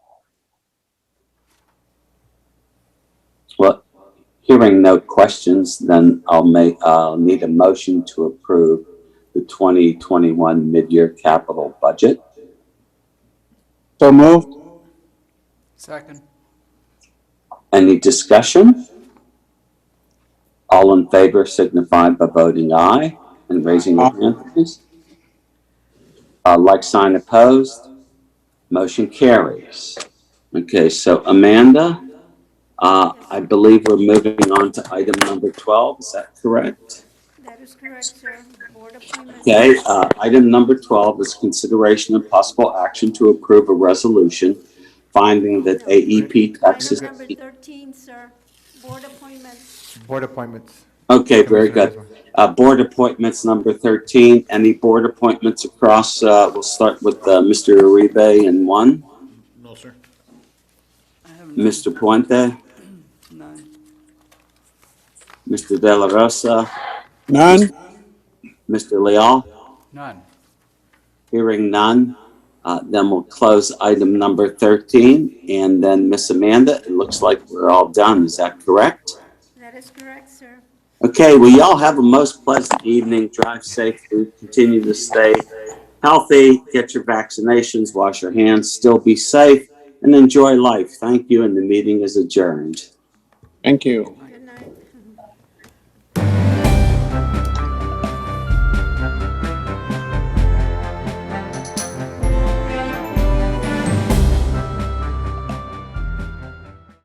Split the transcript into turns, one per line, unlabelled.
Well, hearing no questions, then I'll make, I'll need a motion to approve the 2021 mid-year capital budget.
So moved.
Second.
Any discussion? All in favor signify by voting aye and raising your hand, please. Uh, like sign opposed, motion carries. Okay, so Amanda, uh, I believe we're moving on to item number 12, is that correct?
That is correct, sir. Board appointments.
Okay, uh, item number 12 is consideration and possible action to approve a resolution finding that E AEP
Item
Texas.
number 13, sir. Board appointments.
Board appointments.
Okay, very
Commissioner
good.
Hazel.
Uh, board appointments, number 13. Any board appointments across, uh, we'll start with, uh, Mr. Uribe in one,
No, sir.
I have none.
Mr. Puente,
None.
Mr. De La Rosa,
None.
Mr. Leal.
None.
Hearing none, uh, then we'll close item number 13. And then Miss Amanda, it looks like we're all done. Is that correct?
That is correct, sir.
Okay, well, y'all have a most pleasant evening. Drive safely, continue to stay healthy, get your vaccinations, wash your hands, still be safe, and enjoy life. Thank you, and the meeting is adjourned.
Thank you.
Good night.